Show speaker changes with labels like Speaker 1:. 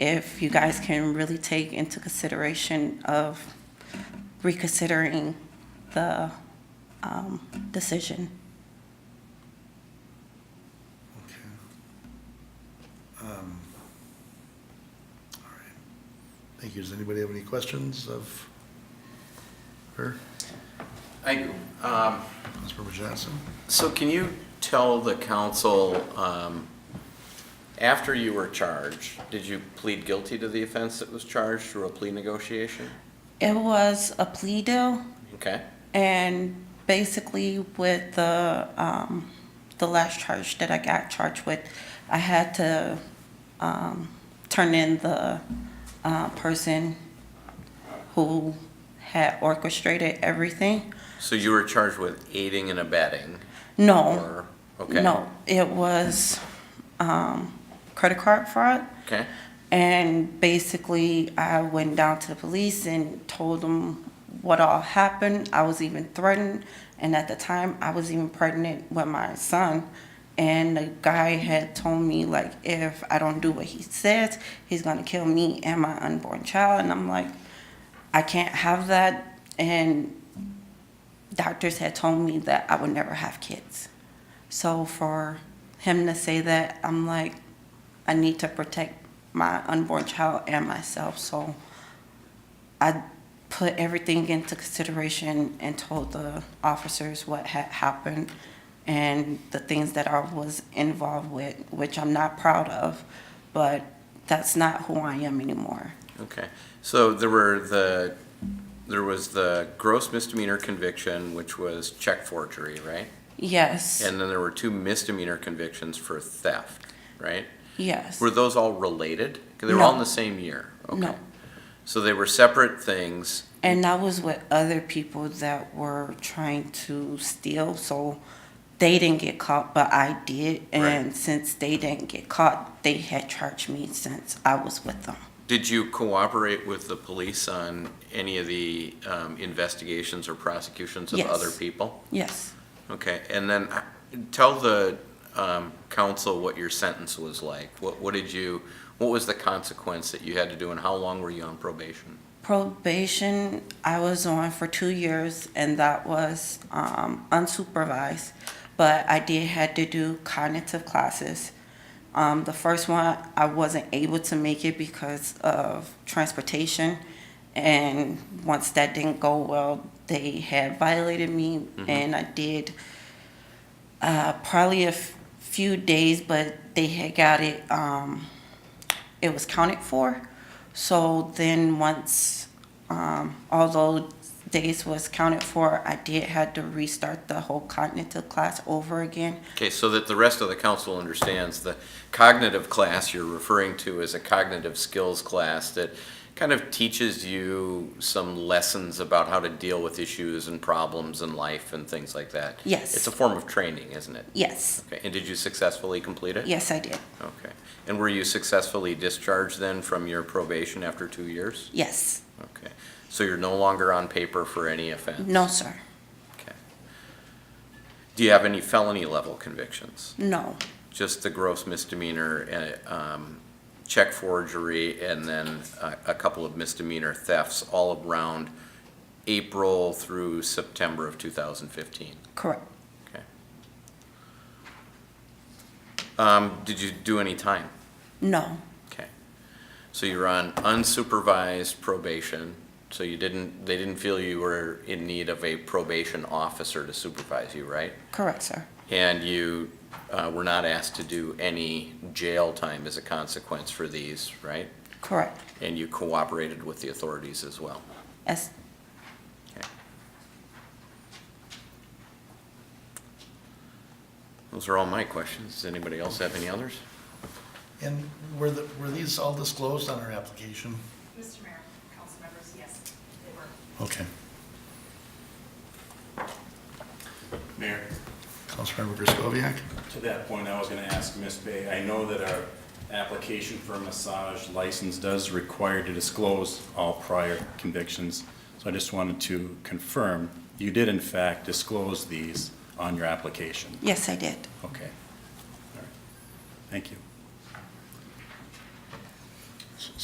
Speaker 1: if you guys can really take into consideration of reconsidering the um, decision.
Speaker 2: Okay. Um, all right. Thank you. Does anybody have any questions of her,
Speaker 3: I do. Um,
Speaker 2: Councilmember Johnson?
Speaker 3: So can you tell the council, um, after you were charged, did you plead guilty to the offense that was charged through a plea negotiation?
Speaker 1: It was a plea deal,
Speaker 3: Okay,
Speaker 1: and basically with the, um, the last charge that I got charged with, I had to, um, turn in the, uh, person who had orchestrated everything.
Speaker 3: so you were charged with aiding and abetting?
Speaker 1: No,
Speaker 3: or Okay.
Speaker 1: no, it was, um, credit card fraud.
Speaker 3: Okay,
Speaker 1: And basically, I went down to the police and told them what all happened. I was even threatened, and at the time, I was even pregnant with my son. And the guy had told me like, if I don't do what he says, he's gonna kill me and my unborn child. And I'm like, I can't have that. And doctors had told me that I would never have kids. So for him to say that, I'm like, I need to protect my unborn child and myself. So I put everything into consideration and told the officers what had happened and the things that I was involved with, which I'm not proud of, but that's not who I am anymore.
Speaker 3: okay. So there were the, there was the gross misdemeanor conviction, which was check forgery, right?
Speaker 1: Yes,
Speaker 3: And then there were two misdemeanor convictions for theft, right?
Speaker 1: yes.
Speaker 3: Were those all related? 'Cause They were all in
Speaker 1: No.
Speaker 3: the same year?
Speaker 1: No.
Speaker 3: Okay. So they were separate things,
Speaker 1: And I was with other people that were trying to steal, so they didn't get caught, but I did. And since they didn't get caught, they had charged me since I was with them.
Speaker 3: Did you cooperate with the police on any of the um, investigations or prosecutions of
Speaker 1: Yes.
Speaker 3: other people?
Speaker 1: Yes.
Speaker 3: Okay, and then uh, tell the um, council what your sentence was like. What, what did you, what was the consequence that you had to do, and how long were you on probation?
Speaker 1: Probation, I was on for two years, and that was um, unsupervised, but I did had to do cognitive classes. Um, the first one, I wasn't able to make it because of transportation, and once that didn't go well, they had violated me, and I did uh, probably a f- few days, but they had got it. Um, it was counted for. So then once, um, all those days was counted for, I did had to restart the whole cognitive class over again.
Speaker 3: Okay, so that the rest of the council understands, the cognitive class you're referring to is a cognitive skills class that kind of teaches you some lessons about how to deal with issues and problems in life and things like that.
Speaker 1: Yes.
Speaker 3: It's a form of training, isn't it?
Speaker 1: Yes,
Speaker 3: Okay, and did you successfully complete it?
Speaker 1: yes, I did.
Speaker 3: Okay, and were you successfully discharged then from your probation after two years?
Speaker 1: Yes.
Speaker 3: Okay, so you're no longer on paper for any offense?
Speaker 1: No, sir.
Speaker 3: Okay. Do you have any felony level convictions?
Speaker 1: No.
Speaker 3: just the gross misdemeanor, uh, um, check forgery, and then a, a couple of misdemeanor thefts all around April through September of two thousand fifteen.
Speaker 1: Correct.
Speaker 3: Okay. Um, did you do any time?
Speaker 1: No.
Speaker 3: Okay. So you were on unsupervised probation, so you didn't, they didn't feel you were in need of a probation officer to supervise you, right?
Speaker 1: Correct, sir.
Speaker 3: And you uh, were not asked to do any jail time as a consequence for these, right?
Speaker 1: Correct.
Speaker 3: And you cooperated with the authorities as well.
Speaker 1: Yes.
Speaker 3: Okay. Those are all my questions. Does anybody else have any others?
Speaker 2: And were the, were these all disclosed on her application?
Speaker 4: Mr. Mayor, council members, yes, they were.
Speaker 2: Okay.
Speaker 5: Mayor,
Speaker 2: Councilmember Griscoviac?
Speaker 5: to that point, I was gonna ask Ms. Bay, I know that our application for a massage license does require to disclose all prior convictions. So I just wanted to confirm, you did in fact disclose these on your application?
Speaker 1: Yes, I did.
Speaker 5: Okay. All right. Thank you.